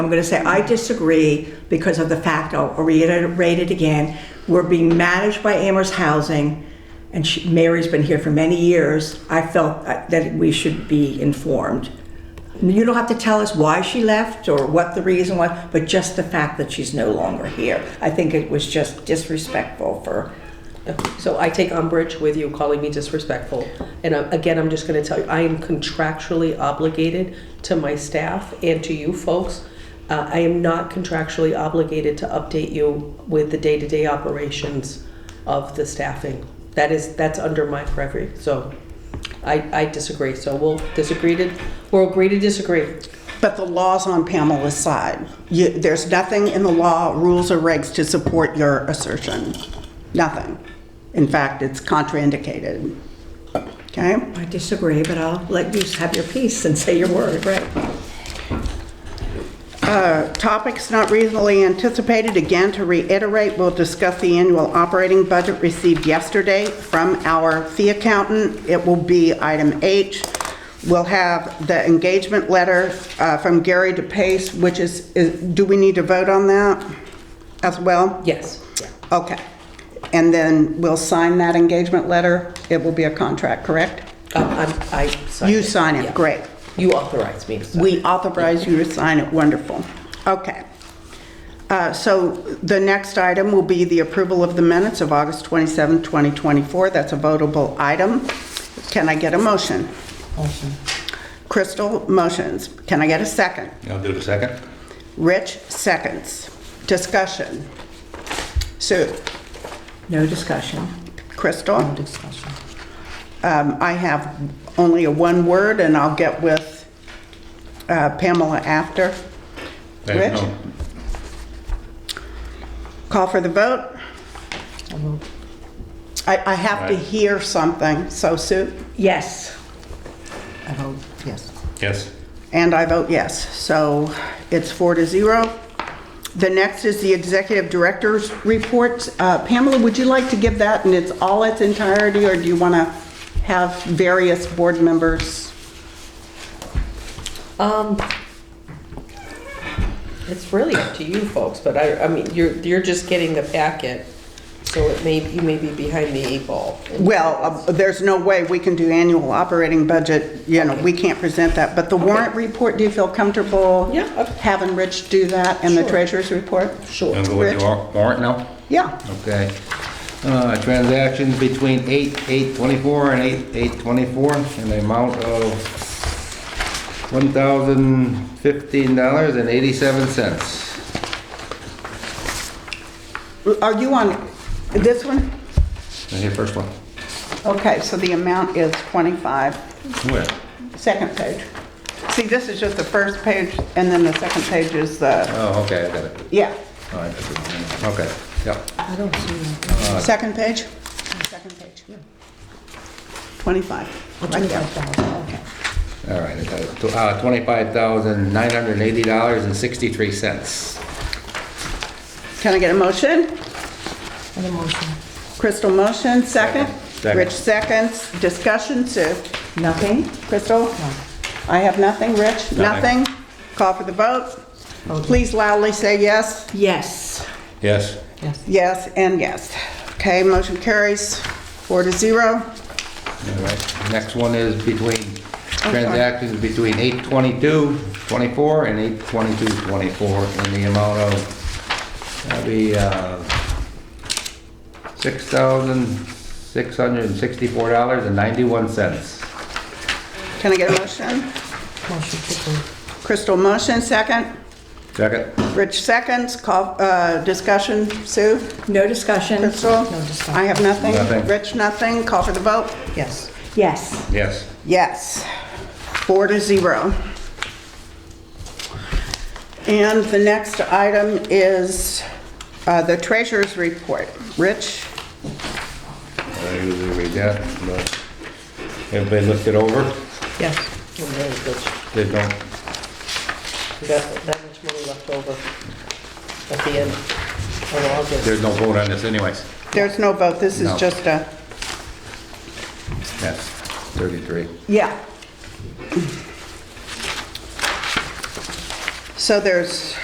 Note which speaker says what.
Speaker 1: I'm going to say, I disagree because of the fact, I'll reiterate it again, we're being managed by Amherst Housing, and she- Mary's been here for many years. I felt uh, that we should be informed. You don't have to tell us why she left or what the reason was, but just the fact that she's no longer here. I think it was just disrespectful for,
Speaker 2: So I take umbrage with you calling me disrespectful. And uh, again, I'm just going to tell you, I am contractually obligated to my staff and to you folks. Uh, I am not contractually obligated to update you with the day-to-day operations of the staffing. That is, that's under my purview. So I, I disagree. So we'll disagree to, we'll agree to disagree.
Speaker 3: But the law's on Pamela's side. You, there's nothing in the law, rules, or regs to support your assertion. Nothing. In fact, it's contraindicated. Okay?
Speaker 1: I disagree, but I'll let you have your piece and say your word, right?
Speaker 3: Uh, Topics not reasonably anticipated, again, to reiterate, we'll discuss the annual operating budget received yesterday from our fee accountant. It will be item H. We'll have the engagement letter uh, from Gary DePace, which is, is- do we need to vote on that as well?
Speaker 2: Yes.
Speaker 3: Okay. And then we'll sign that engagement letter. It will be a contract, correct?
Speaker 2: Um, I'm- I sign
Speaker 3: You sign it,
Speaker 2: Yeah.
Speaker 3: great.
Speaker 2: You authorize me to sign.
Speaker 3: We authorize you to sign it, wonderful. Okay. Uh, So the next item will be the approval of the minutes of August 27, 2024. That's a votable item. Can I get a motion? Motion. Crystal motions. Can I get a second?
Speaker 4: I'll do the second.
Speaker 3: Rich seconds. Discussion. Sue?
Speaker 1: No discussion.
Speaker 3: Crystal? Um, I have only a one word, and I'll get with uh, Pamela after.
Speaker 4: I have
Speaker 3: Rich?
Speaker 4: no-
Speaker 3: Call for the vote? I, I have to
Speaker 4: Aye.
Speaker 3: hear something, so Sue,
Speaker 1: Yes.
Speaker 5: I vote yes.
Speaker 4: Yes.
Speaker 3: and I vote yes. So it's four to zero. The next is the executive director's report. Uh, Pamela, would you like to give that in its, all its entirety, or do you want to have various board members?
Speaker 2: Um, it's really up to you folks, but I, I mean, you're, you're just getting the packet, so it may, you may be behind the eight ball.
Speaker 3: Well, uh, there's no way we can do annual operating budget, you know, we can't present that, but the warrant report, do you feel comfortable?
Speaker 2: Yeah, uh,
Speaker 3: Having Rich do that and the
Speaker 2: Sure.
Speaker 3: treasurer's report?
Speaker 2: Sure.
Speaker 4: I'll go with
Speaker 3: Rich?
Speaker 4: the war- warrant now.
Speaker 3: Yeah,
Speaker 4: Okay. Uh, Transactions between 8/8/24 and 8/8/24 in the amount of $1,015.87.
Speaker 3: are you on this one?
Speaker 4: Now Here, first one.
Speaker 3: Okay, so the amount is 25,
Speaker 4: Where?
Speaker 3: second page. See, this is just the first page, and then the second page is the,
Speaker 4: Oh, okay, I got it.
Speaker 3: yeah,
Speaker 4: All right, that's it. Okay, yep.
Speaker 3: second page? Second page, yeah. 25, right there.
Speaker 4: All right, I got it. Tw- uh, $25,980.63.
Speaker 3: Can I get a motion?
Speaker 5: And a motion.
Speaker 3: Crystal motion, second.
Speaker 4: Second.
Speaker 3: Rich seconds. Discussion, Sue?
Speaker 1: Nothing?
Speaker 3: Crystal? I have nothing. Rich?
Speaker 4: Nothing.
Speaker 3: Nothing. Call for the vote. Please loudly say yes,
Speaker 1: Yes.
Speaker 4: Yes.
Speaker 5: Yes.
Speaker 3: yes, and yes. Okay, motion carries four to zero.
Speaker 4: All right, next one is between, transactions between 8/22/24 and 8/22/24 in the amount of, that'd be, uh, $6,664.91.
Speaker 3: Can I get a motion?
Speaker 5: Motion to approve.
Speaker 3: Crystal motion, second.
Speaker 4: Second?
Speaker 3: Rich seconds. Call, uh, discussion, Sue?
Speaker 1: No discussion?
Speaker 3: Crystal?
Speaker 5: No discussion.
Speaker 3: I have nothing.
Speaker 4: Nothing.
Speaker 3: Rich, nothing. Call for the vote.
Speaker 5: Yes.
Speaker 1: Yes.
Speaker 4: Yes.
Speaker 3: Yes, four to zero. And the next item is uh, the treasurer's report. Rich,
Speaker 4: I usually read that, but everybody looked it over,
Speaker 5: Yes.
Speaker 2: I'm really good.
Speaker 4: did no,
Speaker 2: We got that much money left over at the end. Oh, well, I'll get it.
Speaker 4: there's no vote on this anyways.
Speaker 3: there's no vote, this is
Speaker 4: No.
Speaker 3: just a,
Speaker 4: Yes, 33.
Speaker 3: yeah. So there's